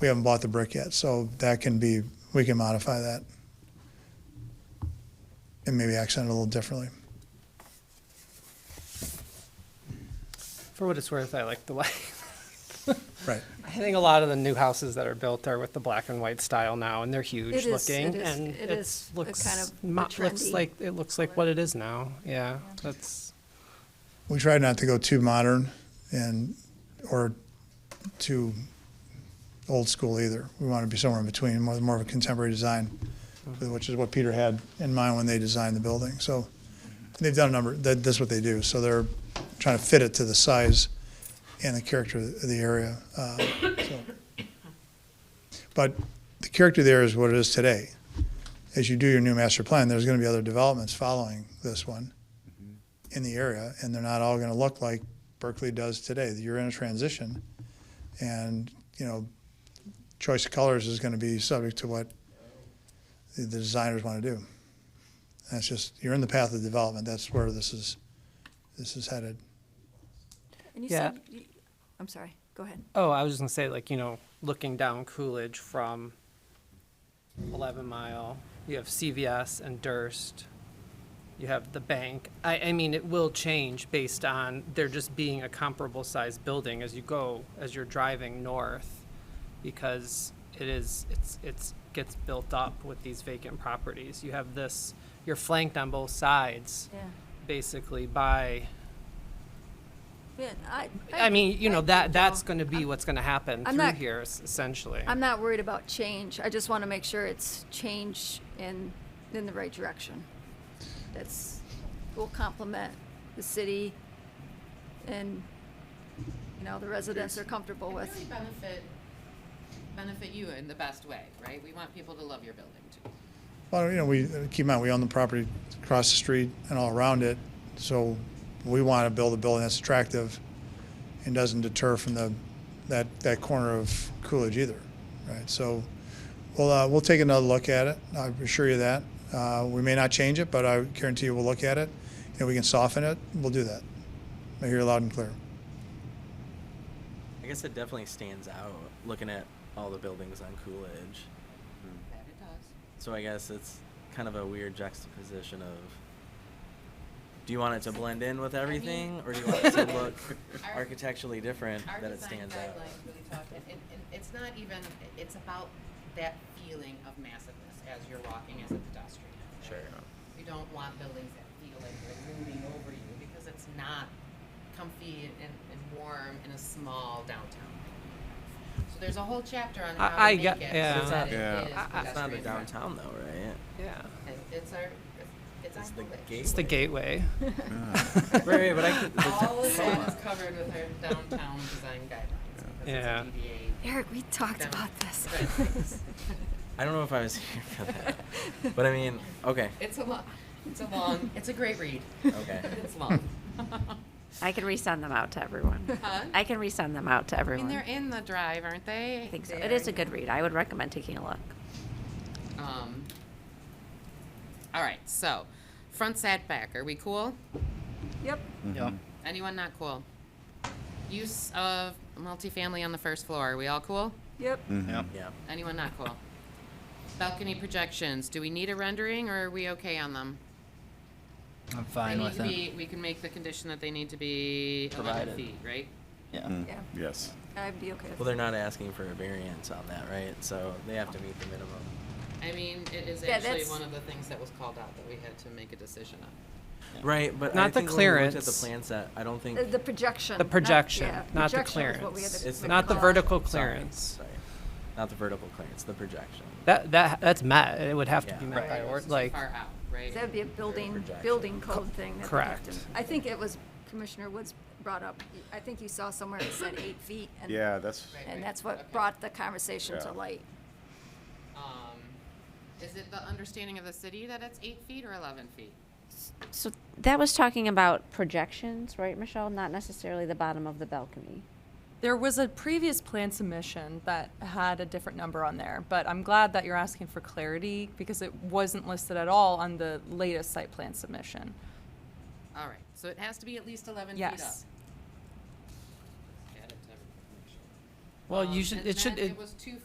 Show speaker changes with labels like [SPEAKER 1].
[SPEAKER 1] we haven't bought the brick yet, so that can be, we can modify that. And maybe accent it a little differently.
[SPEAKER 2] For what it's worth, I like the light.
[SPEAKER 1] Right.
[SPEAKER 2] I think a lot of the new houses that are built are with the black and white style now, and they're huge
[SPEAKER 3] It is-
[SPEAKER 2] looking,
[SPEAKER 3] it is-
[SPEAKER 2] and
[SPEAKER 3] it
[SPEAKER 2] it's
[SPEAKER 3] is a
[SPEAKER 2] looks
[SPEAKER 3] kind of
[SPEAKER 2] mo-
[SPEAKER 3] a
[SPEAKER 2] looks
[SPEAKER 3] trendy
[SPEAKER 2] like, it looks like what it is now, yeah, that's,
[SPEAKER 1] We try not to go too modern and, or too old school either. We want to be somewhere in between, more, more of a contemporary design, which is what Peter had in mind when they designed the building. So they've done a number, that, that's what they do. So they're trying to fit it to the size and the character of the area. Uh, so. But the character there is what it is today. As you do your new master plan, there's going to be other developments following this one in the area, and they're not all going to look like Berkeley does today. You're in a transition, and you know, choice of colors is going to be subject to what the the designers want to do. That's just you're in the path of development. That's where this is this is headed.
[SPEAKER 3] And you
[SPEAKER 2] Yeah.
[SPEAKER 3] said, you- I'm sorry, go ahead.
[SPEAKER 2] oh, I was just gonna say, like, you know, looking down Coolidge from Eleven Mile, you have CVS and Durst, you have the bank. I, I mean, it will change based on there just being a comparable sized building as you go, as you're driving north, because it is, it's, it's, gets built up with these vacant properties. You have this, you're flanked on both sides,
[SPEAKER 3] Yeah.
[SPEAKER 2] basically, by
[SPEAKER 3] Yeah, I,
[SPEAKER 2] I mean, you know, that, that's
[SPEAKER 3] going.
[SPEAKER 2] gonna be what's gonna happen
[SPEAKER 3] I'm
[SPEAKER 2] through
[SPEAKER 3] not-
[SPEAKER 2] here, es- essentially.
[SPEAKER 3] I'm not worried about change. I just want to make sure it's change in, in the right direction. That's, will complement the city and, you know, the residents are comfortable
[SPEAKER 4] And
[SPEAKER 3] with.
[SPEAKER 4] really benefit, benefit you in the best way, right? We want people to love your building too.
[SPEAKER 1] Well, you know, we keep in mind we own the property across the street and all around it, so we want to build a building that's attractive and doesn't deter from the that that corner of Coolidge either, right? So we'll uh, we'll take another look at it. I assure you that uh, we may not change it, but I guarantee you we'll look at it. If we can soften it, we'll do that. I hear you loud and clear.
[SPEAKER 5] I guess it definitely stands out looking at all the buildings on Coolidge.
[SPEAKER 4] That it does.
[SPEAKER 5] So I guess it's kind of a weird juxtaposition of do you want it to blend in with everything or do you want it to look
[SPEAKER 4] Our-
[SPEAKER 5] architecturally different
[SPEAKER 4] Our
[SPEAKER 5] that it
[SPEAKER 4] design
[SPEAKER 5] stands out?
[SPEAKER 4] guidelines really talk, and, and and it's not even, it's about that feeling of massiveness as you're walking as a pedestrian. right?
[SPEAKER 5] Sure.
[SPEAKER 4] We don't want buildings that feel like they're moving over you because it's not comfy and, and warm in a small downtown. So there's a whole chapter on
[SPEAKER 2] I-
[SPEAKER 4] how
[SPEAKER 2] I
[SPEAKER 4] to make
[SPEAKER 2] get-
[SPEAKER 4] it
[SPEAKER 2] yeah.
[SPEAKER 4] so that it
[SPEAKER 6] Yeah.
[SPEAKER 4] is
[SPEAKER 2] I- I-
[SPEAKER 5] It's not a
[SPEAKER 4] pedestrian friendly.
[SPEAKER 5] downtown though, right?
[SPEAKER 2] Yeah,
[SPEAKER 4] It's- It's our, it's our
[SPEAKER 5] It's the
[SPEAKER 4] village.
[SPEAKER 5] gate.
[SPEAKER 2] it's the gateway.
[SPEAKER 5] right, right, but I could,
[SPEAKER 4] All of that is covered with our downtown design guidelines. because it's a
[SPEAKER 2] Yeah.
[SPEAKER 4] DDA
[SPEAKER 3] Eric, we talked
[SPEAKER 4] down-
[SPEAKER 3] about this.
[SPEAKER 4] guidelines.
[SPEAKER 5] I don't know if I was here for that. But I mean, okay,
[SPEAKER 4] It's a long, it's a long, it's a great read.
[SPEAKER 5] okay.
[SPEAKER 4] It's long.
[SPEAKER 7] I can resend them out to everyone.
[SPEAKER 4] Huh?
[SPEAKER 7] I can resend them out to
[SPEAKER 4] I mean,
[SPEAKER 7] everyone.
[SPEAKER 4] they're in the drive, aren't they?
[SPEAKER 7] I think so. It is a good read. I would recommend taking a look.
[SPEAKER 4] Um, all right, so, front setback, are we cool?
[SPEAKER 3] Yep,
[SPEAKER 4] Anyone not cool? Use of multifamily on the first floor, are we all cool?
[SPEAKER 3] yep.
[SPEAKER 5] Yeah.
[SPEAKER 4] Anyone not cool? Balcony projections, do we need a rendering or are we okay on them?
[SPEAKER 8] I'm
[SPEAKER 4] They
[SPEAKER 8] fine
[SPEAKER 4] need
[SPEAKER 8] with
[SPEAKER 4] to
[SPEAKER 8] it.
[SPEAKER 4] be, we can make the condition that they need to be eleven
[SPEAKER 5] Provided.
[SPEAKER 4] feet, right?
[SPEAKER 8] Yeah.
[SPEAKER 3] Yeah,
[SPEAKER 6] Yes.
[SPEAKER 3] I'd be okay
[SPEAKER 5] Well,
[SPEAKER 3] with
[SPEAKER 5] they're not asking for a variance on that, right? So they have to meet the minimum.
[SPEAKER 4] I mean, it is
[SPEAKER 3] Yeah,
[SPEAKER 4] actually
[SPEAKER 3] that's-
[SPEAKER 4] one of the things that was called out that we had to make a decision on.
[SPEAKER 5] Right, but I
[SPEAKER 2] Not the
[SPEAKER 5] think when we looked at the
[SPEAKER 2] clearance.
[SPEAKER 5] plan set, I don't think
[SPEAKER 3] that. The projection.
[SPEAKER 2] The
[SPEAKER 3] not-
[SPEAKER 2] projection,
[SPEAKER 3] yeah,
[SPEAKER 2] not the
[SPEAKER 3] projection is what we had
[SPEAKER 2] clearance.
[SPEAKER 3] to
[SPEAKER 5] It's
[SPEAKER 3] make
[SPEAKER 2] Not the
[SPEAKER 3] call.
[SPEAKER 2] vertical
[SPEAKER 5] Sorry,
[SPEAKER 2] clearance.
[SPEAKER 5] Sorry, not the vertical clearance, the projection.
[SPEAKER 2] That, that, that's met, it would have to be
[SPEAKER 5] Yeah.
[SPEAKER 2] met by,
[SPEAKER 4] It
[SPEAKER 2] or,
[SPEAKER 4] was too
[SPEAKER 2] like,
[SPEAKER 4] Far out, right?
[SPEAKER 3] That'd be a building,
[SPEAKER 5] projection.
[SPEAKER 3] building code thing. that they'd have to-
[SPEAKER 2] correct.
[SPEAKER 3] I think it was Commissioner Woods brought up, I think you saw somewhere it said eight feet. and-
[SPEAKER 6] Yeah, that's,
[SPEAKER 4] Right, right,
[SPEAKER 3] And that's
[SPEAKER 4] okay.
[SPEAKER 3] what brought the conversation
[SPEAKER 6] Yeah.
[SPEAKER 3] to light.
[SPEAKER 4] Um, is it the understanding of the city that it's eight feet or eleven feet?
[SPEAKER 7] So that was talking about projections, right, Michelle? Not necessarily the bottom of the balcony.
[SPEAKER 9] There was a previous plan submission that had a different number on there, but I'm glad that you're asking for clarity because it wasn't listed at all on the latest site plan submission.
[SPEAKER 4] All right, so it has to be at least eleven feet up.
[SPEAKER 9] Yes.
[SPEAKER 4] Add it to everything, make sure.
[SPEAKER 2] well,
[SPEAKER 4] Um,
[SPEAKER 2] you should,
[SPEAKER 4] and
[SPEAKER 2] it should,
[SPEAKER 4] then
[SPEAKER 2] it-
[SPEAKER 4] was two